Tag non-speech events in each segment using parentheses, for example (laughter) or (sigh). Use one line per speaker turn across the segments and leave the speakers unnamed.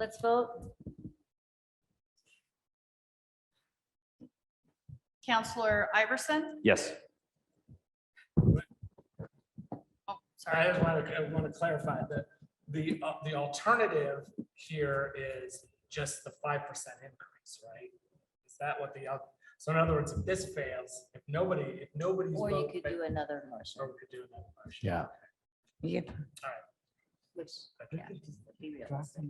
Let's vote.
Counselor Iverson?
Yes.
Oh,
I
sorry.
want to, I want to clarify that the, uh, the alternative here is just the five percent increase, right? Is that what the, al- so in other words, if this fails, if nobody, if nobody's.
Or you
vote
could
fa-
do another motion.
Or we could do another motion.
Yeah.
Which, yeah, just be realistic.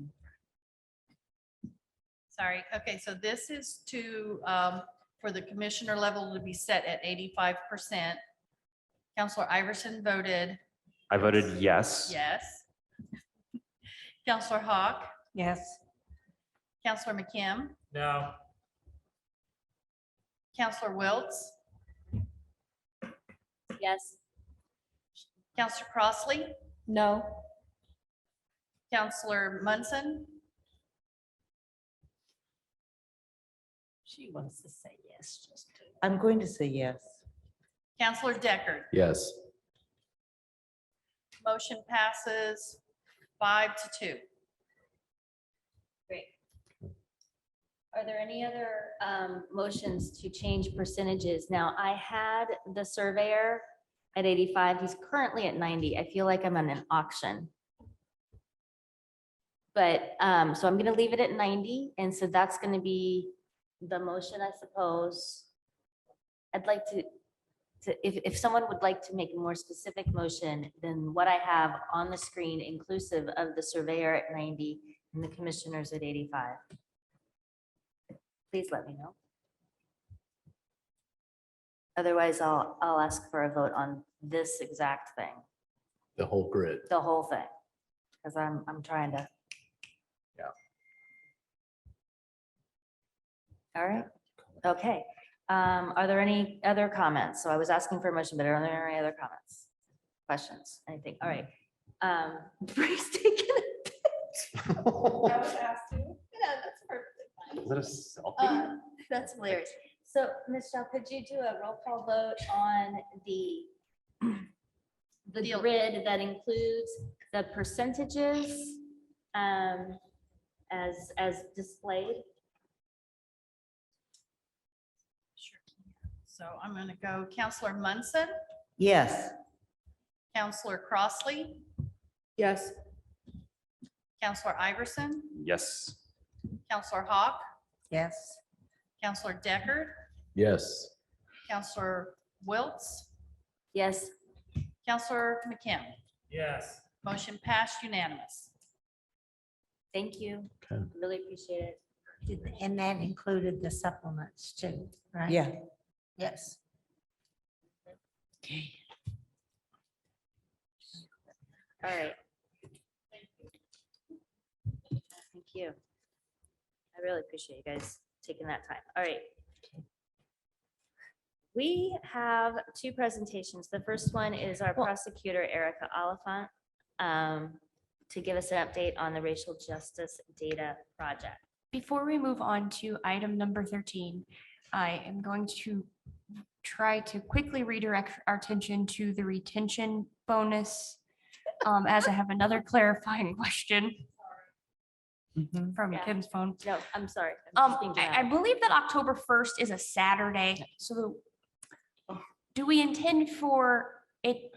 Sorry. Okay, so this is to, um, for the commissioner level to be set at eighty-five percent. Counselor Iverson voted
I voted yes.
yes. (laughs) Counselor Hawk,
Yes.
Counselor McKim,
No,
Counselor Wiltz,
Yes,
Counselor Crossley,
No.
Counselor Munson,
she wants to say yes, just to.
I'm going to say yes.
Counselor Deckard.
Yes.
Motion passes five to two.
Great. Are there any other um, motions to change percentages? Now, I had the surveyor at 85, he's currently at 90. I feel like I'm on an auction. But, um, so I'm going to leave it at 90, and so that's going to be the motion, I suppose. I'd like to, to, if, if someone would like to make a more specific motion than what I have on the screen inclusive of the surveyor at 90 and the commissioners at 85. Please let me know. Otherwise, I'll, I'll ask for a vote on this exact thing,
the whole grid.
the whole thing, because I'm, I'm trying to.
Yeah.
All right, okay. Um, Are there any other comments? So I was asking for a motion, but are there any other comments? Questions, anything? All right. Um, (laughs) Bree's taking a
(laughs) Is
was asked to. (laughs) Yeah, that's perfectly fine.
that a selfie?
Um, That's hilarious. So, Michelle, could you do a roll call vote on the the
Deal.
grid that includes the percentages um, as, as displayed?
Sure can. So I'm going to go Counselor Munson,
Yes.
Counselor Crossley,
Yes.
Counselor Iverson,
Yes.
Counselor Hawk,
Yes.
Counselor Deckard,
Yes.
Counselor Wiltz,
Yes,
Counselor McKim.
yes.
Motion passed unanimous.
thank you.
Okay.
Really appreciate it.
Did- And that included the supplements too, right?
Yeah.
Yes.
All right. Thank you. I really appreciate you guys taking that time. All right. We have two presentations. The first one is our prosecutor Erica Oliphant um, to give us an update on the racial justice data project.
Before we move on to item number thirteen, I am going to try to quickly redirect our attention to the retention bonus. um, as I have another clarifying (laughs) question
Mhm.
from
Yeah.
Kim's phone.
No, I'm sorry. I'm
Um,
just being
I, I
dramatic.
believe that October first is a Saturday, so the- do we intend for it,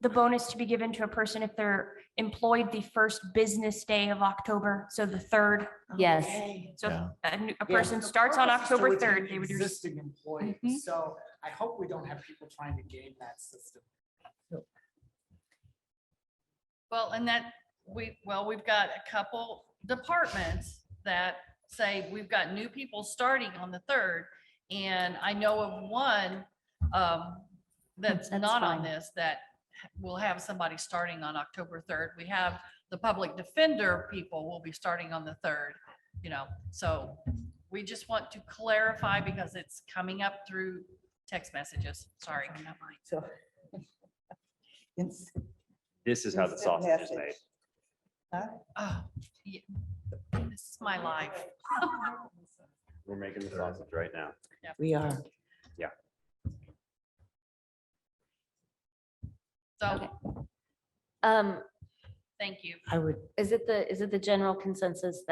the bonus to be given to a person if they're employed the first business day of October, so the third?
Yes,
So
Yeah.
if a, new- a
Yeah.
person starts on
So it's
October
an
third, they would. receive-
Existing employee,
Mhm.
so I hope we don't have people trying to game that system.
Well, and that, we, well, we've got a couple departments that say we've got new people starting on the third. And I know of one um, that's
That's
not on
fine.
this, that will have somebody starting on October third. We have the public defender people will be starting on the third, you know, so we just want to clarify because it's coming up through text messages. Sorry. not mine.
So. (laughs) Ins-
This is how the
instant
sausage is
message.
made.
Huh?
Oh, yeah. This is my life. (laughs)
We're making the sausage right now.
We are.
So
Okay. um,
thank you.
I would
is it the, is it the general consensus that